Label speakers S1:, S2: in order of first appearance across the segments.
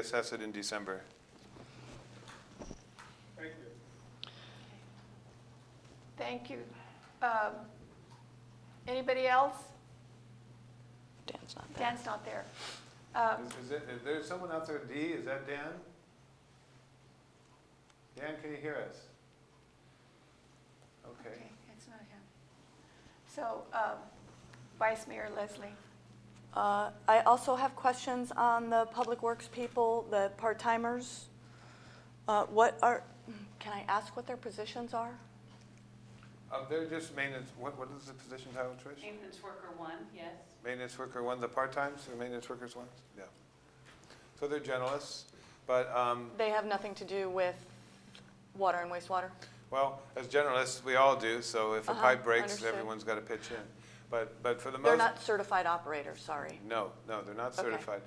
S1: assess it in December.
S2: Thank you. Um, Anybody else?
S3: Dan's not there.
S2: Dan's not there.
S3: Oh.
S2: Um,
S1: Is, is it, is there someone out there, D, is that Dan? Dan, can you hear us? Okay,
S2: Okay, it's not him. So um, Vice Mayor Leslie,
S3: Uh, I also have questions on the Public Works people, the part-timers. Uh, What are, can I ask what their positions are?
S1: uh, they're just maintenance, what, what is the position title, Trish?
S4: Maintenance worker one, yes.
S1: Maintenance worker ones, the part-times, or maintenance workers ones? Yeah. So they're generalists, but, um,
S3: They have nothing to do with water and wastewater?
S1: well, as generalists, we all do, so if a
S3: Uh-huh,
S1: pipe breaks,
S3: understood.
S1: everyone's gotta pitch in. But, but for the most.
S3: They're not certified operators, sorry.
S1: No, no, they're not
S3: Okay.
S1: certified.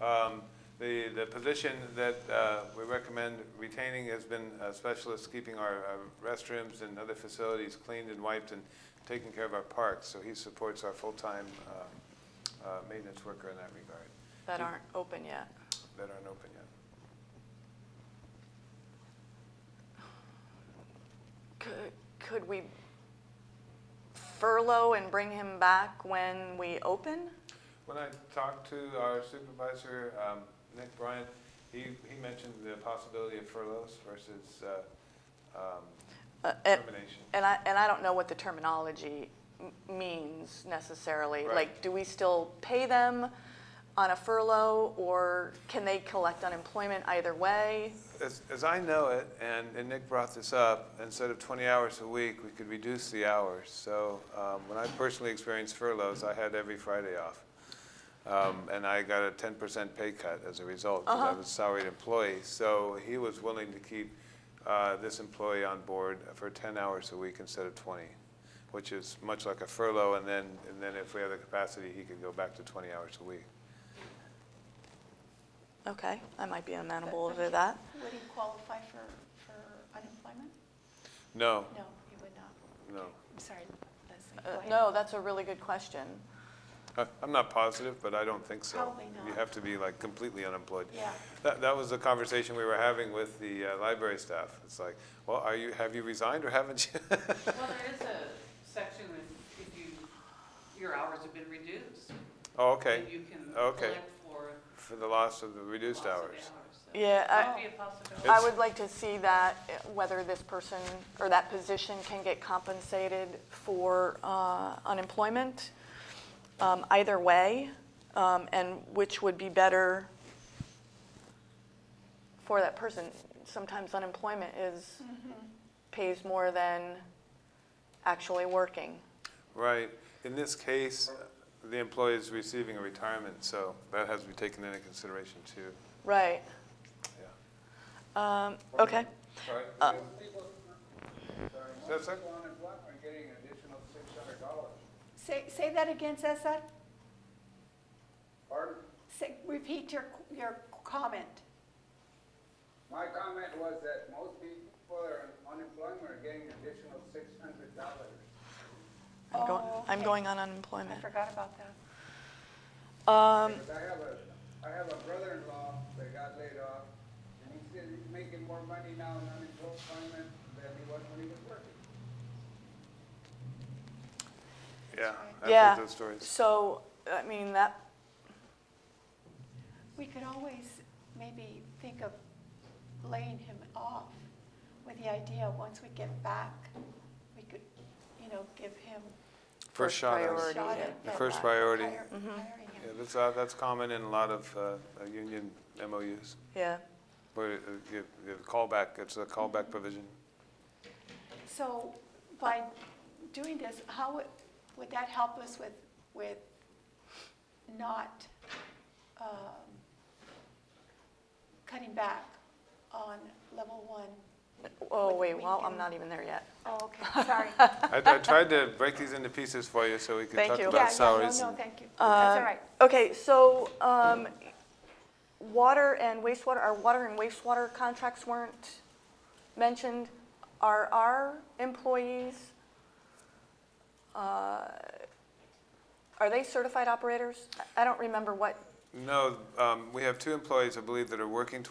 S1: Um, The, the position that uh, we recommend retaining has been a specialist keeping our uh, restrooms and other facilities cleaned and wiped and taking care of our parks. So he supports our full-time um, uh, maintenance worker in that regard,
S3: That aren't open yet.
S1: that aren't open yet.
S3: Could- Could we furlough and bring him back when we open?
S1: When I talked to our supervisor, um, Nick Bryant, he, he mentioned the possibility of furloughs versus uh, um,
S3: Uh, and-
S1: termination.
S3: And I, and I don't know what the terminology m- means necessarily.
S1: Right.
S3: Like, do we still pay them on a furlough, or can they collect unemployment either way?
S1: As, as I know it, and, and Nick brought this up, instead of 20 hours a week, we could reduce the hours. So um, when I personally experienced furloughs, I had every Friday off. Um, and I got a 10% pay cut as a result because I was a salaried employee. So he was willing to keep uh, this employee on board for 10 hours a week instead of 20, which is much like a furlough. And then, and then if we have the capacity, he could go back to 20 hours a week.
S3: Okay, I might be amenable to that.
S2: would he qualify for, for unemployment?
S1: No,
S2: No, he would not.
S1: no.
S2: I'm sorry, Leslie.
S3: Uh,
S2: Go ahead.
S3: No, that's a really good question.
S1: I- Uh, I'm not positive, but I don't think so.
S2: Probably
S1: You
S2: not.
S1: have to be like completely unemployed.
S2: Yeah.
S1: That, that was the conversation we were having with the uh, library staff. It's like, well, are you, have you resigned or haven't you?
S4: Well, there is a section if if you, your hours have been reduced.
S1: Oh, okay,
S4: And you can
S1: Okay.
S4: collect for
S1: for the loss of the reduced
S4: loss of
S1: hours.
S4: hours. so
S3: Yeah,
S4: That
S3: I-
S4: would be a possibility.
S3: I would like to see that, uh, whether this person or that position can get compensated for uh, unemployment, um, either way, um, and which would be better for that person. Sometimes unemployment is,
S2: Mm-hmm.
S3: pays more than actually working.
S1: Right. In this case, the employee is receiving a retirement, so that has to be taken into consideration too.
S3: Right.
S1: Yeah.
S3: Um, Okay.
S1: Sorry.
S3: Uh,
S1: That's it?
S5: Blackman getting an additional six hundred dollars.
S2: Say, say that again, Cesar.
S5: Pardon?
S2: Say, repeat your, your comment.
S5: My comment was that most people that are on unemployment are getting an additional six hundred dollars.
S3: I'm going-
S2: Oh,
S3: I'm
S2: okay.
S3: going on
S2: I
S3: unemployment.
S2: forgot about that.
S3: Um,
S5: Because I have a, I have a brother-in-law that got laid off, and he said he's making more money now in unemployment than he was when he was working.
S1: Yeah. I've
S3: Yeah.
S1: heard those stories.
S3: So, I mean, that
S2: We could always maybe think of laying him off with the idea, once we get back, we could, you know, give him
S1: First shot. at it.
S2: a
S3: priority.
S2: shot
S3: yeah.
S2: at.
S1: The
S2: at
S1: first
S2: hi-
S1: priority.
S2: hire- Hiring
S1: Yeah,
S2: him.
S1: that's, uh, that's common in a lot of uh, uh, union MOUs.
S3: Yeah,
S1: Where uh, you, you callback, it's a callback provision.
S2: So by doing this, how would, would that help us with, with not um, cutting back on level one?
S3: oh,
S2: Whether
S3: wait,
S2: we
S3: well, I'm
S2: can-
S3: not even there yet.
S2: Oh, okay, sorry.
S1: I, I tried to break these into pieces for you so we could
S3: Thank
S1: talk
S3: you.
S2: Yeah,
S1: about
S2: yeah,
S1: salaries.
S2: No, no,
S1: and-
S2: thank you. That's all
S3: Um,
S2: right.
S3: Okay, so, um, water and wastewater, our water and wastewater contracts weren't mentioned. Are our employees, uh, are they certified operators? I- I don't remember what
S1: No, um, we have two employees, I believe, that are working